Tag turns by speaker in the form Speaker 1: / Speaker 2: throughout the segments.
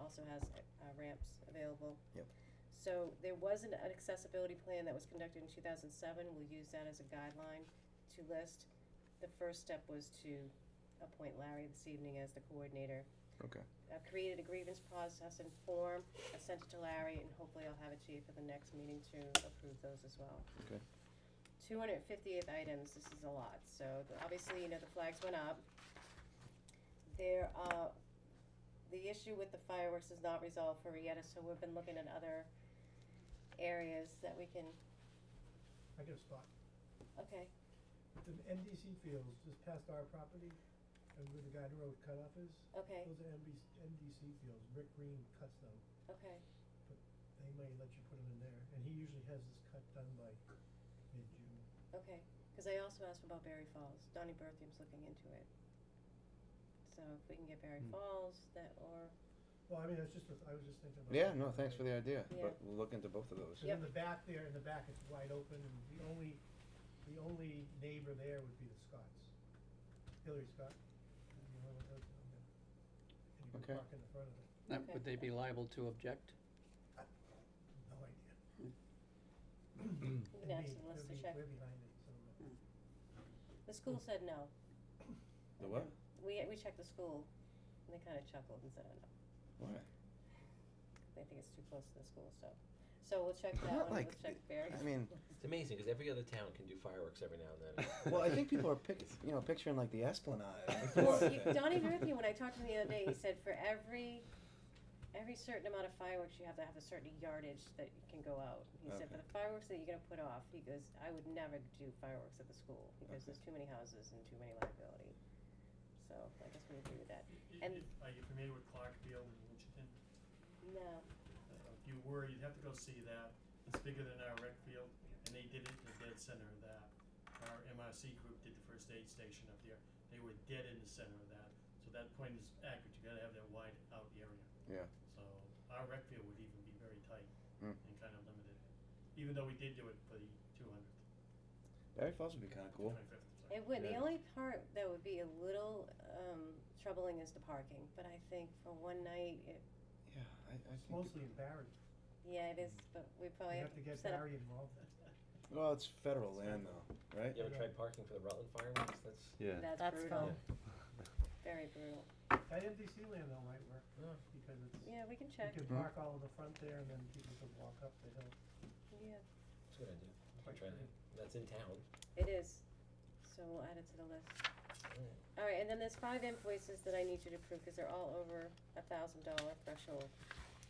Speaker 1: also has uh, ramps available.
Speaker 2: Yep.
Speaker 1: So there was an accessibility plan that was conducted in two thousand seven, we'll use that as a guideline to list. The first step was to appoint Larry this evening as the coordinator.
Speaker 2: Okay.
Speaker 1: I've created a grievance process and form, I sent it to Larry, and hopefully I'll have it to you for the next meeting to approve those as well.
Speaker 2: Okay.
Speaker 1: Two hundred fifty-eight items, this is a lot, so the- obviously, you know, the flags went up. There, uh, the issue with the fireworks is not resolved for Rieta, so we've been looking at other areas that we can,
Speaker 3: I got a spot.
Speaker 1: okay,
Speaker 3: The MDC fields just past our property and where the guide road cutoff is,
Speaker 1: okay,
Speaker 3: those are MBC, MDC fields. Rick Green cuts them.
Speaker 1: okay,
Speaker 3: They may let you put them in there. And he usually has this cut done by mid-June.
Speaker 1: okay. Cause I also asked about Berry Falls, Donnie Berthium's looking into it. So if we can get Berry
Speaker 2: Hmm.
Speaker 1: Falls, that, or,
Speaker 3: Well, I mean, it's just, a- I was just thinking about.
Speaker 2: Yeah,
Speaker 3: that
Speaker 2: no,
Speaker 3: the
Speaker 2: thanks for
Speaker 3: other
Speaker 2: the idea,
Speaker 1: Yeah.
Speaker 2: but we'll look into both of those.
Speaker 3: day. And in the back there, in the back, it's wide open and the only, the only neighbor there would be the Scotts. Hillary Scott. is the only one that lives down there. And you
Speaker 2: Okay.
Speaker 3: can park in the front of it.
Speaker 4: Now,
Speaker 1: Okay.
Speaker 4: Would they be liable to object?
Speaker 3: No idea.
Speaker 1: we can ask the list to check. Hmm.
Speaker 3: We're behind it, so. uh,
Speaker 1: The school said no.
Speaker 2: The what?
Speaker 1: We, we checked the school, and they kinda chuckled and said, oh no,
Speaker 2: Why?
Speaker 1: they think it's too close to the school, so, so we'll check that
Speaker 2: Not
Speaker 1: one,
Speaker 2: like,
Speaker 1: we'll check Barry.
Speaker 2: I mean,
Speaker 5: It's amazing because every other town can do fireworks every now and then.
Speaker 2: well, I think people are pick, you know, picturing like the Esplanade.
Speaker 1: Well, you- Donnie Murphy, when I talked to him the other day, he said for every, every certain amount of fireworks, you have to have a certain yardage that you can go out. He said, for the fireworks that you're gonna put off, he goes, I would never do fireworks at the school, because
Speaker 2: Okay.
Speaker 1: there's too many houses and too many liability. So, I guess we agree with that.
Speaker 6: Y- y-
Speaker 1: And-
Speaker 6: y- Are you familiar with Clarkfield in Winchton?
Speaker 1: No,
Speaker 6: Uh, If you were, you'd have to go see that. It's bigger than our rec field, and they did it in the dead center of that. Our MRC group did the first aid station up there. They were dead in the center of that. So that point is accurate. You gotta have that wide out area.
Speaker 2: Yeah.
Speaker 6: So our rec field would even be very tight
Speaker 2: Mm.
Speaker 6: and kind of limited, even though we did do it for the two hundredth,
Speaker 2: Barry Falls would be kind of cool.
Speaker 6: twenty-fifth, sorry.
Speaker 1: It would. The
Speaker 2: Yeah.
Speaker 1: only part that would be a little um, troubling is the parking. But I think for one night, it,
Speaker 2: Yeah, I, I
Speaker 3: It's
Speaker 2: think.
Speaker 3: mostly in Barry.
Speaker 1: Oh, yeah, it is. But we
Speaker 3: You
Speaker 1: probably
Speaker 3: have to get
Speaker 1: set up.
Speaker 3: Barry involved.
Speaker 2: Well, it's federal land though, right?
Speaker 5: You ever tried parking for the Rutland fireworks? That's
Speaker 7: Yeah.
Speaker 1: That's,
Speaker 4: That's
Speaker 1: brutal.
Speaker 4: fun.
Speaker 1: Very brutal.
Speaker 3: That MDC land though might work, because it's, you
Speaker 1: Yeah, we can check.
Speaker 3: can
Speaker 2: Mhm.
Speaker 3: park all in the front there and then people can walk up the hill.
Speaker 1: Yeah,
Speaker 5: that's a good idea. You
Speaker 3: Quite
Speaker 5: can try that. That's in town.
Speaker 1: it is. So we'll add it to the list. All right, and then there's five invoices that I need you to approve because they're all over a thousand dollar threshold.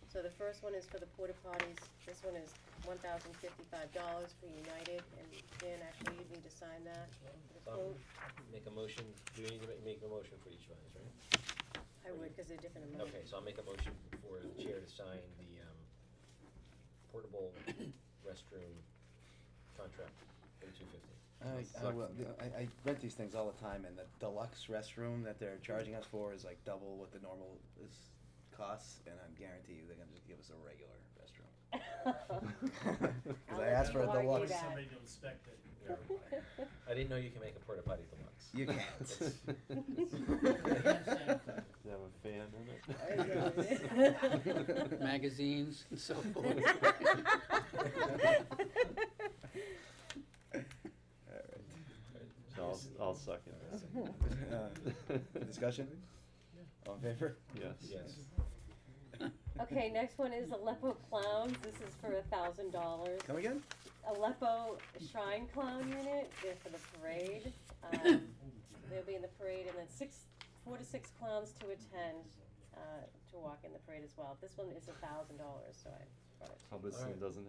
Speaker 1: So the first one is for the porta potties. This one is one thousand fifty-five dollars for United, and Dan, actually, you'd need to sign that. The
Speaker 5: Um,
Speaker 1: quote.
Speaker 5: Make a motion. Do we need to ma- make a motion for each one, right?
Speaker 1: I would, because they're different amounts.
Speaker 5: Okay, so I'll make a motion for the chair to sign the um, portable restroom contract for two fifty.
Speaker 2: I, I, will, I, I rent these things all the time, and the deluxe restroom that they're charging us for is like double what the normal is costs, and I guarantee you they're gonna just give us a regular restroom. Because
Speaker 1: I'll
Speaker 2: I
Speaker 1: let
Speaker 2: asked for a
Speaker 1: you argue
Speaker 2: deluxe.
Speaker 1: that.
Speaker 6: Somebody to inspect it.
Speaker 5: I didn't know you can make a porta potty deluxe.
Speaker 2: You
Speaker 7: Does
Speaker 2: can't.
Speaker 7: it have a fan
Speaker 1: There
Speaker 7: in
Speaker 1: you
Speaker 7: it?
Speaker 1: go.
Speaker 4: Magazines and so forth.
Speaker 7: So I'll, I'll second
Speaker 2: Uh,
Speaker 7: that.
Speaker 2: Discussion? All in favor?
Speaker 7: Yes.
Speaker 5: Yes.
Speaker 1: Okay, next one is Aleppo Clowns. This is for a thousand dollars.
Speaker 2: Come again?
Speaker 1: Aleppo Shrine Clown Unit, they're for the parade. Um, they'll be in the parade and then six, four to six clowns to attend, uh, to walk in the parade as well. This one is a thousand dollars, so I brought it.
Speaker 7: Hubbardston
Speaker 5: Alright.
Speaker 7: doesn't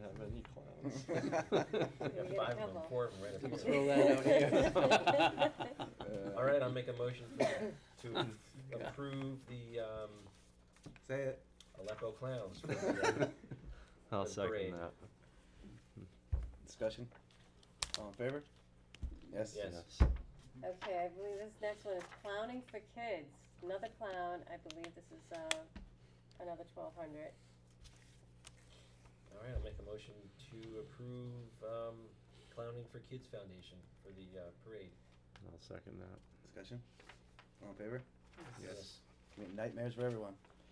Speaker 7: have any clowns.
Speaker 5: We have
Speaker 1: get a
Speaker 5: five of them,
Speaker 1: couple.
Speaker 5: four of them right up here.
Speaker 4: Throw that out
Speaker 1: here.
Speaker 2: Uh,
Speaker 5: All right, I'll make a motion for- to approve the um,
Speaker 2: Say it.
Speaker 5: Aleppo Clowns. for the, uh,
Speaker 7: I'll
Speaker 5: The
Speaker 7: second
Speaker 5: parade.
Speaker 7: that.
Speaker 2: Discussion? All in favor? Yes?
Speaker 5: Yes.
Speaker 1: Okay, I believe this next one is clowning for kids. Another clown, I believe this is, uh, another twelve hundred.
Speaker 5: All right, I'll make a motion to approve um, Clowning for Kids Foundation for the uh, parade.
Speaker 7: I'll second that.
Speaker 2: Discussion? All in favor? Yes. I mean, Nightmares for everyone.